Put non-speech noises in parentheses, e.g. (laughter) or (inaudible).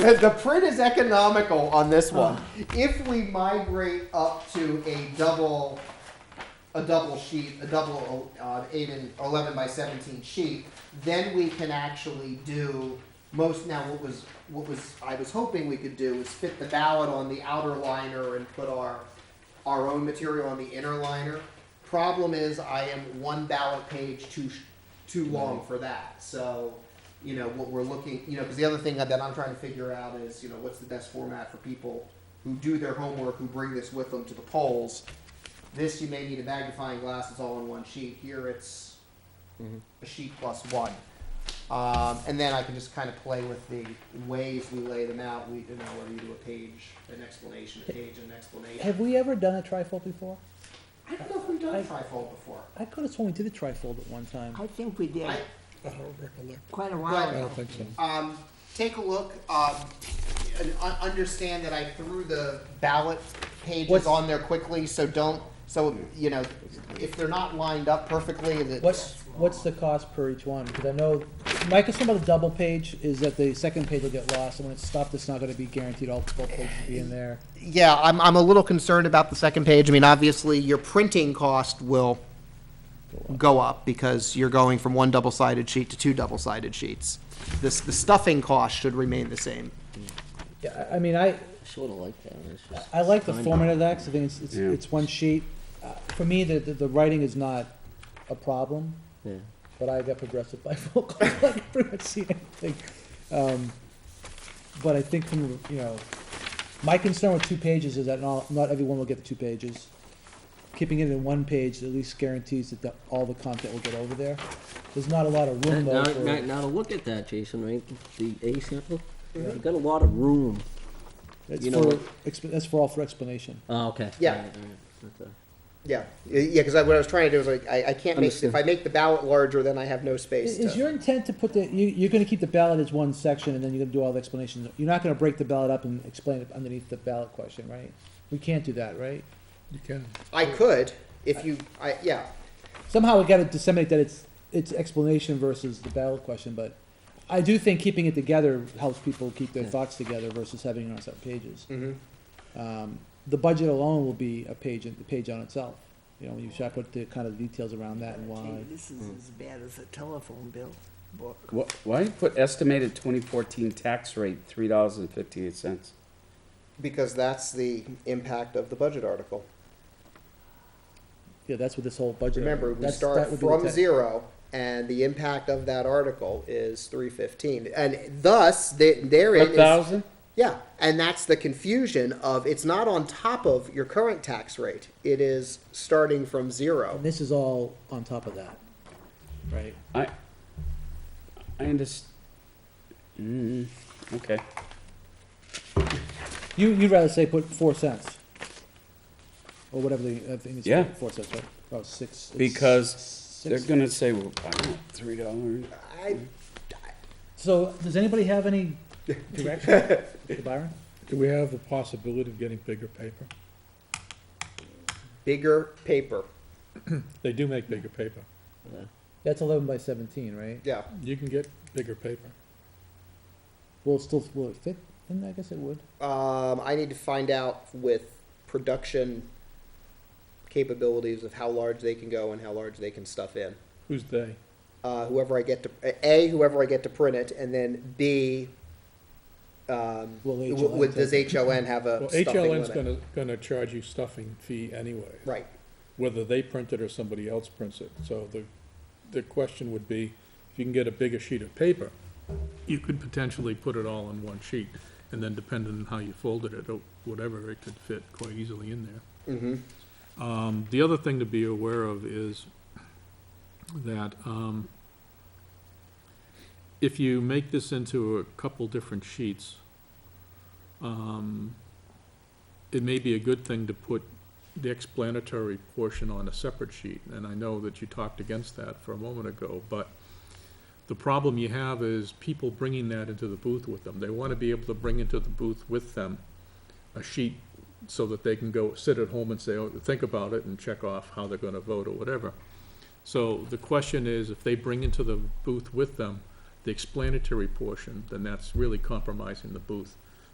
The, the print is economical on this one. If we migrate up to a double, a double sheet, a double uh, eight and eleven by seventeen sheet, then we can actually do most. Now, what was what was I was hoping we could do is fit the ballot on the outer liner and put our our own material on the inner liner. Problem is, I am one ballot page too sh- too long for that. So, you know, what we're looking, you know, because the other thing that I'm trying to figure out is, you know, what's the best format for people who do their homework, who bring this with them to the polls. This you may need a magnifying glass. It's all in one sheet. Here it's Mm-hmm. a sheet plus one. Um, and then I can just kind of play with the ways we lay them out. We, you know, whether you do a page, an explanation, a page, an explanation. Have we ever done a trifold before? I don't know if we've done I- trifold before. I could have sworn we did a trifold at one time. I think we did, I, quite a while Right. I ago. don't think so. um, take a look, um, and un- understand that I threw the ballot pages What's- on there quickly, so don't, so, you know, if they're not lined up perfectly, that. What's, what's the cost per each one? Because I know, my concern about the double page is that the second page will get lost, and when it's stuffed, it's not gonna be guaranteed all both pages to be in there. Yeah, I'm, I'm a little concerned about the second page. I mean, obviously, your printing cost will go up because you're going from one double-sided sheet to two double-sided sheets. This, the stuffing cost should remain the same. Yeah, I, I mean, I, Sort of like that. It's just I like the Fine. format of that, 'cause I think it's, it's, Yeah. it's one sheet. Uh, For me, the, the, the writing is not a problem, Yeah. but I got progressive (laughs) bifocal, I can pretty much see anything. Um, but I think from, you know, my concern with two pages is that not, not everyone will get the two pages. Keeping it in one page at least guarantees that the, all the content will get over there. There's not a lot of room Now, though now- now, for, now to look at that, Jason, right? The A sample, you've got a lot of room. that's you know for, what- exp- that's for all for explanation. Oh, okay. Yeah. All right, all right. Okay. Yeah, yeah, because what I was trying to do was like, I, I can't make, if I make the ballot larger, then I have no space Is, to. is your intent to put the, you, you're gonna keep the ballot as one section and then you're gonna do all the explanations? You're not gonna break the ballot up and explain it underneath the ballot question, right? We can't do that, right? You can. I could, if you, I, yeah. somehow we got to disseminate that it's it's explanation versus the ballot question. But I do think keeping it together helps people keep their Yeah. thoughts together versus having it on separate pages. Mhm. Um, the budget alone will be a page in- the page on itself. You know, you should put the kind of details around that and why. Gee, This is as bad as a telephone bill book. Wh- Why put estimated twenty fourteen tax rate three dollars and fifty eight cents? Because that's the impact of the budget article. Yeah, that's what this whole budget. Remember, we that's- start that would be the from text. zero, and the impact of that article is three fifteen, and thus, the- therein A is. thousand? Yeah, and that's the confusion of, it's not on top of your current tax rate, it is starting from zero. And this is all on top of that, right? I, I underst- mm, okay. You you'd rather say put four cents. Or whatever the, I think it's Yeah. four cents, right? Oh, six. it's Because they're six- gonna say, well, I don't know, three dollars. I, So, does anybody have any direction, Mr. Byron? Do we have the possibility of getting bigger paper? bigger paper, They do make bigger paper. That's eleven by seventeen, right? yeah. You can get bigger paper. Will it still, will it fit? And I guess it would. Um, I need to find out with production capabilities of how large they can go and how large they can stuff in. Who's they? Uh, whoever I get to, A, whoever I get to print it, and then B, um, Will w- HLN w- does take HLN have a Well, Uh, stuffing HLN's limit? gonna, gonna charge you stuffing fee anyway. Right, Whether they print it or somebody else prints it. So the, the question would be, if you can get a bigger sheet of paper, you could potentially put it all on one sheet. And then depending on how you folded it or whatever, it could fit quite easily in there. mm-hmm, Um, The other thing to be aware of is that um, if you make this into a couple different sheets, um, it may be a good thing to put the explanatory portion on a separate sheet. And I know that you talked against that for a moment ago, but the problem you have is people bringing that into the booth with them. They want to be able to bring into the booth with them a sheet so that they can go sit at home and say, oh, think about it and check off how they're gonna vote or whatever. So the question is, if they bring into the booth with them, the explanatory portion, then that's really compromising the booth.